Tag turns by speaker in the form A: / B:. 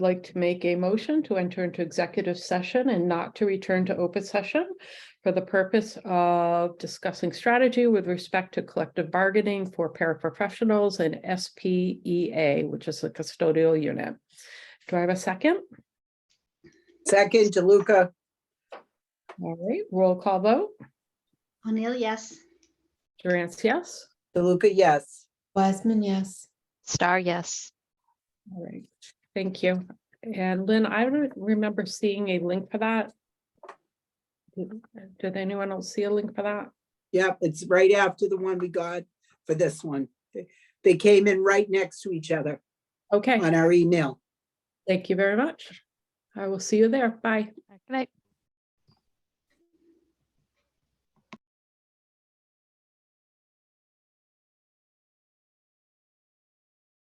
A: like to make a motion to enter into executive session and not to return to open session for the purpose of discussing strategy with respect to collective bargaining for paraprofessionals and SPEA, which is the custodial unit. Do I have a second?
B: Second, DeLuca,
A: All right, roll call vote.
C: O'Neill, yes.
A: Durant, yes?
B: DeLuca, yes.
D: Wiseman, yes.
E: Star, yes.
A: All right, thank you. And Lynn, I don't remember seeing a link for that. Did- Did anyone else see a link for that?
B: Yep, it's right after the one we got for this one. They- They came in right next to each other
A: Okay,
B: on our email.
A: thank you very much. I will see you there. Bye.
E: Good night.